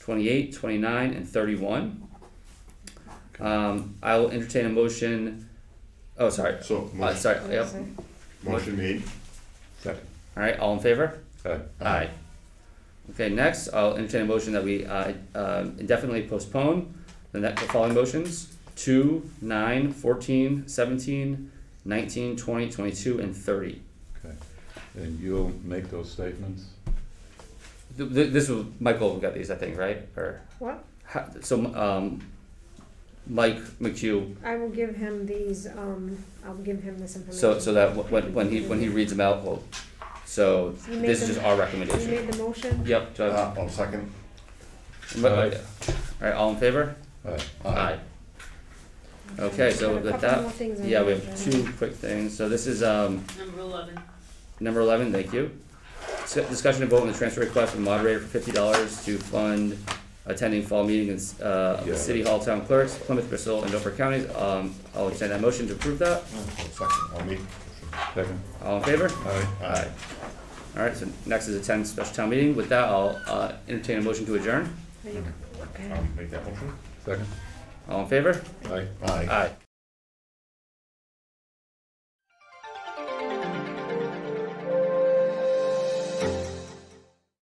28, 29, and 31. Um, I will entertain a motion. Oh, sorry. So, Uh, motion, sorry. Yep. motion made. Second. All right. All in favor? Aye. Aye. Okay, next, I'll entertain a motion that we uh, um, indefinitely postpone the next, the following motions. Two, nine, fourteen, seventeen, nineteen, twenty, twenty-two, and thirty. Okay. And you'll make those statements? Th- th- This was, Michael got these, I think, right? Or, What? ha- so, um, Mike McHugh, I will give him these, um, I'll give him this information. so, so that wh- when, when he, when he reads them out, well, so You made this is them- just our You recommendation. made the motion? Yep, do I Ah. have- Uh, I'll second. m- okay. All right, all in favor? Aye. Aye. Okay, so Got a with couple that- more things on Yeah, we the have agenda. two quick things. So this is, um, Number eleven. Number eleven, thank you. Dis- Discussion and vote on the transfer request from moderator for fifty dollars to fund attending fall meetings, uh, of the Yeah. city hall town clerks, Plymouth, Bristol, and Dover counties. Um, I'll extend that motion to approve that. I'll second. I'll make. uh, Second. All in favor? Aye. Aye. Alright, so next is attend special town meeting. With that, I'll, uh, entertain a motion to adjourn. Are you- okay. I'll make that motion. Second. All in favor? Aye. Aye. Aye.